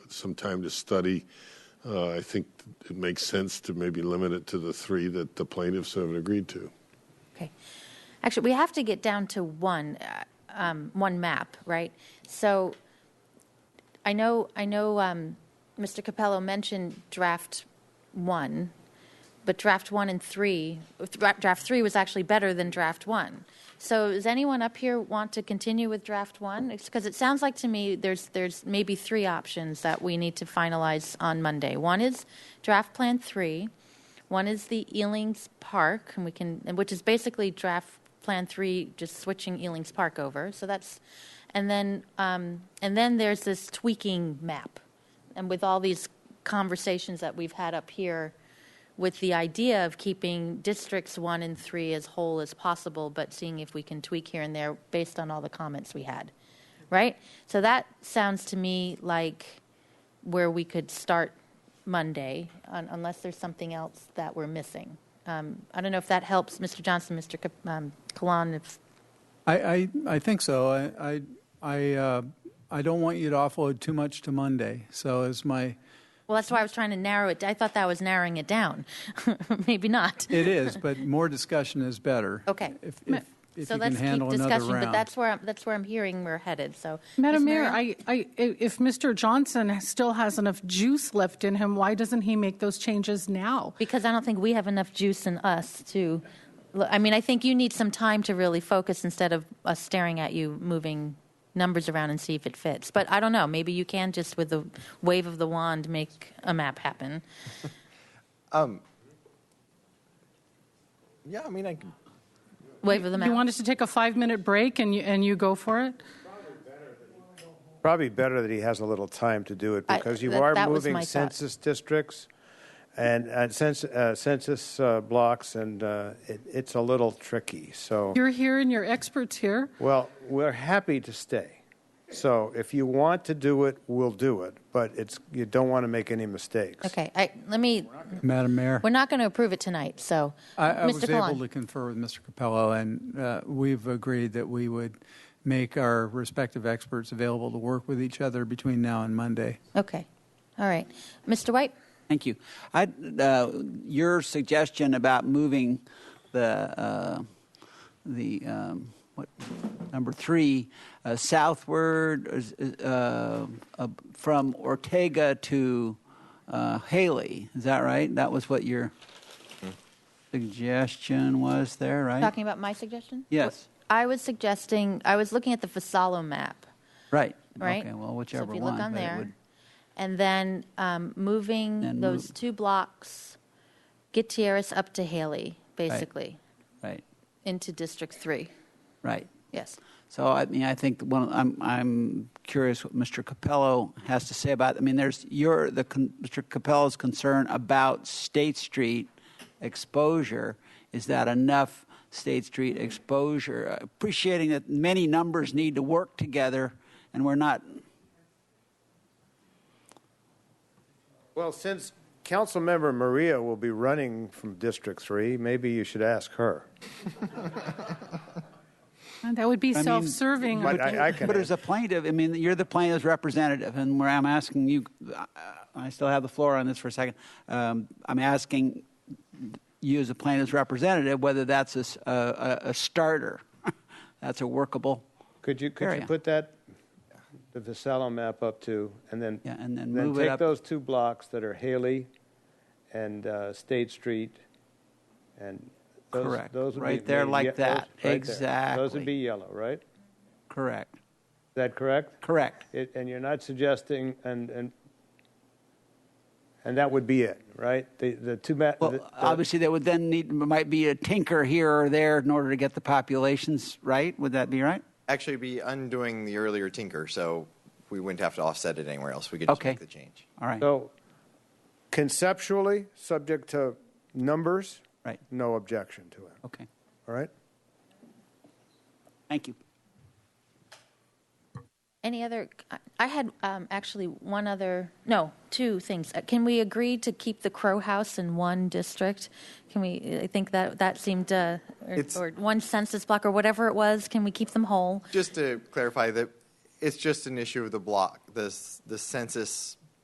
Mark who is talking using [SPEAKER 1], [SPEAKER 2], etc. [SPEAKER 1] some time to study. Uh, I think it makes sense to maybe limit it to the three that the plaintiffs have agreed to.
[SPEAKER 2] Okay. Actually, we have to get down to one, uh, um, one map, right? So I know, I know um, Mr. Capello mentioned draft one, but draft one and three, dra- draft three was actually better than draft one. So does anyone up here want to continue with draft one? Because it sounds like to me there's, there's maybe three options that we need to finalize on Monday. One is draft plan three. One is the Ealing's Park, and we can, and which is basically draft plan three, just switching Ealing's Park over. So that's, and then, um, and then there's this tweaking map, and with all these conversations that we've had up here, with the idea of keeping districts one and three as whole as possible, but seeing if we can tweak here and there based on all the comments we had, right? So that sounds to me like where we could start Monday, un- unless there's something else that we're missing. Um, I don't know if that helps, Mr. Johnson, Mr. Ka- um, Kalan, if,
[SPEAKER 3] I, I, I think so. I, I, I, uh, I don't want you to offload too much to Monday. So as my,
[SPEAKER 2] well, that's why I was trying to narrow it. I thought that was narrowing it down. Maybe not.
[SPEAKER 3] it is, but more discussion is better.
[SPEAKER 2] Okay.
[SPEAKER 3] If, if, if
[SPEAKER 2] So
[SPEAKER 3] you
[SPEAKER 2] let's
[SPEAKER 3] can
[SPEAKER 2] keep
[SPEAKER 3] handle
[SPEAKER 2] discussion,
[SPEAKER 3] another round.
[SPEAKER 2] but that's where, I'm- that's where I'm hearing we're headed, so.
[SPEAKER 4] Madam
[SPEAKER 2] Ms.
[SPEAKER 4] Mayor,
[SPEAKER 2] Maria?
[SPEAKER 4] I, I, if Mr. Johnson still has enough juice left in him, why doesn't he make those changes now?
[SPEAKER 2] Because I don't think we have enough juice in us to, I mean, I think you need some time to really focus instead of us staring at you moving numbers around and see if it fits. But I don't know, maybe you can just with the wave of the wand make a map happen.
[SPEAKER 5] Yeah, I mean, I can.
[SPEAKER 2] Wave of the
[SPEAKER 4] You
[SPEAKER 2] map.
[SPEAKER 4] wanted to take a five-minute break and you, and you go for it?
[SPEAKER 5] Probably better that he has a little time to do it
[SPEAKER 2] I-
[SPEAKER 5] because you
[SPEAKER 2] that-
[SPEAKER 5] are
[SPEAKER 2] that was
[SPEAKER 5] moving
[SPEAKER 2] my thought.
[SPEAKER 5] census districts and, and census, uh, census uh, blocks, and uh, it, it's a little tricky. So,
[SPEAKER 4] You're here and you're experts here.
[SPEAKER 5] well, we're happy to stay. So, if you want to do it, we'll do it. But it's you don't want to make any mistakes.
[SPEAKER 2] Okay, I, let me,
[SPEAKER 3] Madam Mayor,
[SPEAKER 2] we're not going to approve it tonight, so.
[SPEAKER 3] I, I
[SPEAKER 2] Mr.
[SPEAKER 3] was able
[SPEAKER 2] Kalan.
[SPEAKER 3] to confer with Mr. Capello, and uh, we've agreed that we would make our respective experts available to work with each other between now and Monday.
[SPEAKER 2] Okay, all right. Mr. White?
[SPEAKER 6] Thank you. I, uh, your suggestion about moving the uh, the um, what number three uh, southward is- is, uh, uh, from Ortega to uh, Haley is that right? That was what your suggestion was there, right?
[SPEAKER 2] Talking about my suggestion?
[SPEAKER 6] Yes.
[SPEAKER 2] I was suggesting, I was looking at the Fasalo map,
[SPEAKER 6] Right.
[SPEAKER 2] right?
[SPEAKER 6] Okay. Well, whichever
[SPEAKER 2] So if you
[SPEAKER 6] one.
[SPEAKER 2] look on
[SPEAKER 6] but it
[SPEAKER 2] there,
[SPEAKER 6] would-
[SPEAKER 2] and then um, moving
[SPEAKER 6] Then
[SPEAKER 2] those
[SPEAKER 6] move-
[SPEAKER 2] two blocks, Gutierrez up to Haley, basically,
[SPEAKER 6] right.
[SPEAKER 2] into District Three.
[SPEAKER 6] Right.
[SPEAKER 2] Yes.
[SPEAKER 6] So I mean, I think one. I'm I'm curious what Mr. Capello has to say about. I mean, there's your the con, Mr. Capello's concern about State Street exposure. Is that enough State Street exposure? Appreciating that many numbers need to work together, and we're not.
[SPEAKER 5] Well, since Councilmember Maria will be running from District 3, maybe you should ask her.
[SPEAKER 4] And That would be
[SPEAKER 6] mean,
[SPEAKER 4] self-serving.
[SPEAKER 5] But I, I can.
[SPEAKER 6] But as a plaintiff, I mean, you're the plaintiff's representative, and where I'm asking you, I- I still have the floor on this for a second. Um, I'm asking you as a plaintiff's representative whether that's a, s- a- a- a starter, that's a workable.
[SPEAKER 5] Could you, could you
[SPEAKER 6] area.
[SPEAKER 5] put that, the Visallo map up to, and then?
[SPEAKER 6] Yeah, and then move it
[SPEAKER 5] take
[SPEAKER 6] up.
[SPEAKER 5] those two blocks that are Haley and uh, State Street, and those,
[SPEAKER 6] Correct,
[SPEAKER 5] those would be.
[SPEAKER 6] right there
[SPEAKER 5] made
[SPEAKER 6] like
[SPEAKER 5] ye- those-
[SPEAKER 6] that,
[SPEAKER 5] right there. Those
[SPEAKER 6] exactly.
[SPEAKER 5] would be yellow, right? Is
[SPEAKER 6] Correct.
[SPEAKER 5] that correct?
[SPEAKER 6] Correct.
[SPEAKER 5] It- And you're not suggesting, and, and, and that would be it, right? The, the two ma.
[SPEAKER 6] Well,
[SPEAKER 5] the- the-
[SPEAKER 6] obviously, there would then need might be a tinker here or there in order to get the populations right. Would that be right?
[SPEAKER 7] actually be undoing the earlier tinker, so we wouldn't have to offset it anywhere else. We could just
[SPEAKER 6] Okay.
[SPEAKER 7] make the change.
[SPEAKER 6] All right.
[SPEAKER 5] So conceptually, subject to numbers.
[SPEAKER 6] Right.
[SPEAKER 5] No objection to it,
[SPEAKER 6] okay.
[SPEAKER 5] all right?
[SPEAKER 6] Thank you.
[SPEAKER 2] Any other? I had um, actually one other. No, two things. Uh, Can we agree to keep the Crow House in one district? Can we? I think that that seemed uh, or,
[SPEAKER 7] It's-
[SPEAKER 2] or one census block or whatever it was. Can we keep them whole?
[SPEAKER 7] Just to clarify that it's just an issue of the block, the, s- the census